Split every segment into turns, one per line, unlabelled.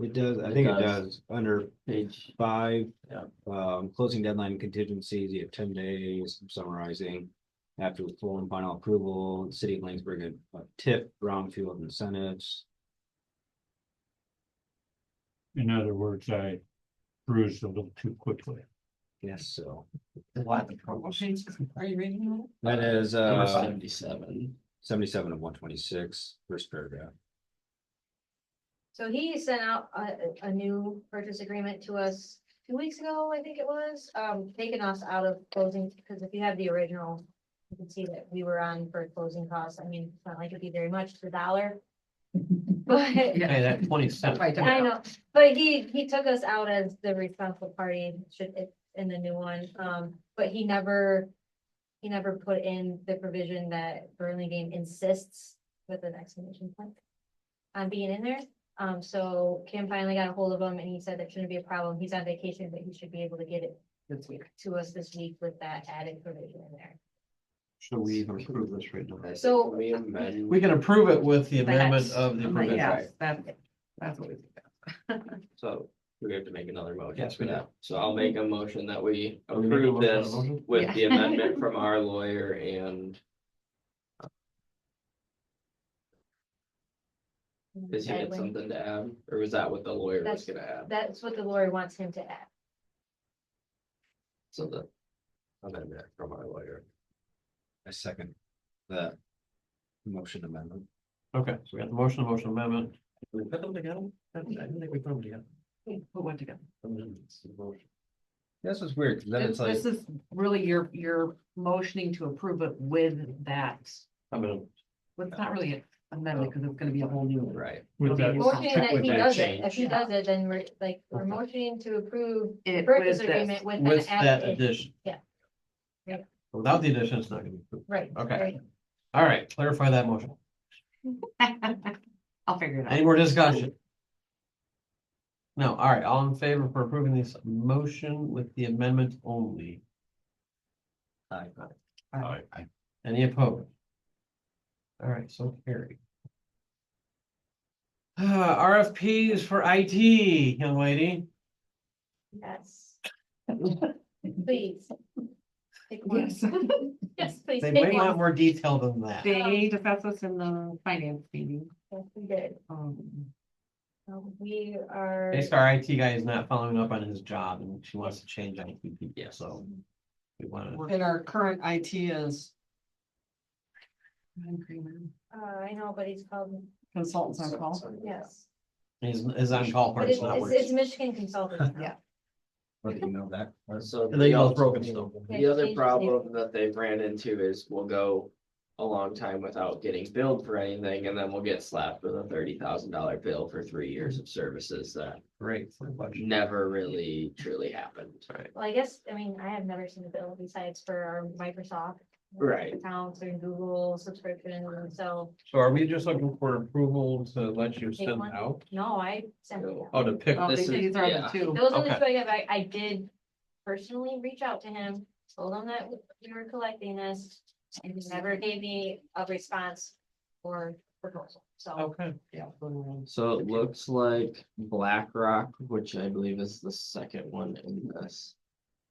It does, I think it
does.
does, under
page,
five.
Yeah.
Um, closing deadline contingencies, you have ten days summarizing. After the full and final approval, the city of Lanesburg, uh, TIP, brownfield incentives.
In other words, I bruised a little too quickly.
Yes, so
what, the promotions, are you reading?
that is,
Number
uh,
seventy-seven,
seventy-seven of one twenty-six, first paragraph.
So he sent out a, a new purchase agreement to us two weeks ago, I think it was, um, taking us out of closing, because if you have the original. You can see that we were on for closing costs. I mean, it's not like it'd be very much for a dollar. But,
yeah, that twenty-seven.
Right,
I know, but he, he took us out as the responsible party, should, it- in the new one, um, but he never. He never put in the provision that Burlingame insists with an exclamation point. On being in there, um, so Kim finally got a hold of him and he said that shouldn't be a problem, he's on vacation, but he should be able to get it.
This week.
To us this week with that added provision in there,
So we even approve this right now.
so.
We can approve it with the amendment uh,
That's-
of the
I'm like,
provision.
yes, that's, that's what we. do.
So we have to make another motion
Yes,
for
we do.
that. So I'll make a motion that we
Are we making a
approve
motion on
this
the motion?
with
Yeah.
the amendment from our lawyer and does he
that
had
way.
something to add? Or was that what the lawyer was
That's-
gonna add?
That's what the lawyer wants him to add.
So the amendment from our lawyer.
I second the motion amendment.
Okay, so we got the motion, the motion amendment. Did we put them together? I didn't think we put them together.
Put one together.
Amendments, the motion.
This is weird, 'cause then
This
it's like,
this is really your, your motioning to approve it with that.
I mean,
Well, it's not really an amendment because it's gonna be a whole new.
Right.
With that-
Motion
Motioning that
with
he
that
does it,
change.
if he
Yeah.
does it, then we're like, we're
Okay.
motioning to approve the
It
purchase
was
agreement
this.
with an
with that
added,
addition.
yeah. Yeah.
Without the addition, it's not gonna be approved.
right.
Okay.
right.
All right, clarify that motion.
I'll figure it out.
Any more discussion? No, all right, all in favor for approving this motion with the amendment only?
Aye.
Aye. Any opposed? All right, so carried. Uh, RFPs for IT, young lady.
Yes. Please. Take one.
Yes.
Yes, please.
They
take
might
one.
want more detail than that.
They discussed this in the finance meeting.
Yes, we did.
Um,
Um, We are.
Based our IT guy is not following up on his job and she wants to change IT people, so. We wanna,
And our current IT is.
Uh, I know, but he's called,
Consultants on call.
yes,
his, his on-call
but
part is
it's,
not
it's
working.
it's Michigan consultant. now.
Yeah.
what do you know that?
So.
And they all broken still.
The other problem that they've ran into is we'll go a long time without getting billed for anything and then we'll get slapped with a thirty thousand dollar bill for three years of services that
Great. for the budget.
never really truly happened.
All right.
Well, I guess, I mean, I have never seen a bill besides for our Microsoft.
Right.
Accounts and Google subscription, so,
So are we just looking for approval to let you
Take
send
one.
out?
no, I sent it out.
Oh, to pick
Oh,
this,
they-
This is-
These are the
yeah.
two.
Those are the
Okay.
two I got back. I did personally reach out to him, told him that we were collecting this, and he never gave me a response or proposal, so.
okay.
Yeah. so,
So it looks like BlackRock, which I believe is the second one in this.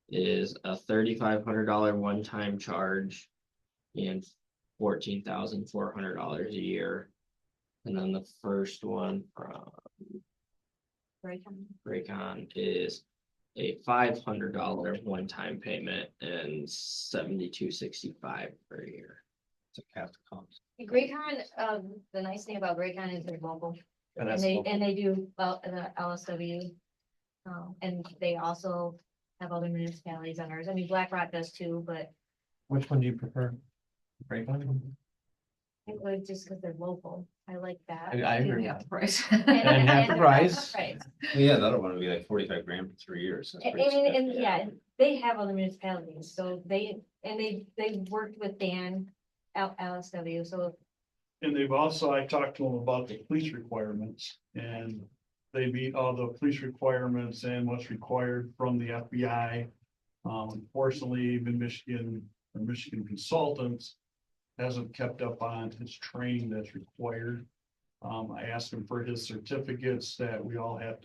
Is a thirty-five hundred dollar one-time charge. And fourteen thousand four hundred dollars a year. And then the first one from
right, um,
Raycon is. A five hundred dollar one-time payment and seventy-two sixty-five per year.
It's a cast of comps.
Graycon, um, the nice thing about Graycon is they're mobile,
And
and
that's
they,
all.
and they do, well, the LSW. Um, and they also have other municipalities on ours. I mean, BlackRock does too, but
Which one do you prefer? Break one?
it would just because they're local. I like that.
I, I agree.
Yeah, price.
And half the
they're
price.
Right.
Yeah, that'll want to be like forty-five grand for three years. That's
And,
pretty
and, and,
significant.
yeah, they have other municipalities, so they, and they, they worked with Dan, L, LSW, so.
And they've also, I talked to them about the police requirements and they meet all the police requirements and what's required from the FBI. Um, unfortunately, even Michigan, or Michigan consultants hasn't kept up on his training that's required. Um, I asked him for his certificates that we all have to